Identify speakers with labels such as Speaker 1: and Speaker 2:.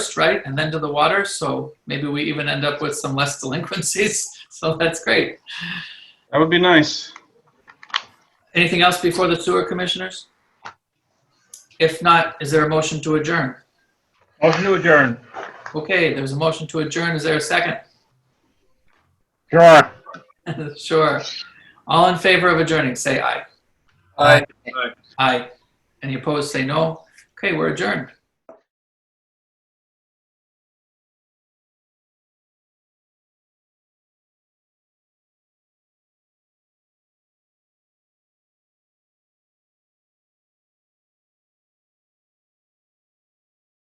Speaker 1: first, right? And then to the water. So maybe we even end up with some less delinquencies. So that's great.
Speaker 2: That would be nice.
Speaker 1: Anything else before the sewer commissioners? If not, is there a motion to adjourn?
Speaker 2: Motion to adjourn.
Speaker 1: Okay, there's a motion to adjourn. Is there a second?
Speaker 2: Sure.
Speaker 1: Sure. All in favor of adjourning, say aye.
Speaker 2: Aye.
Speaker 1: Aye. Any opposed, say no. Okay, we're adjourned.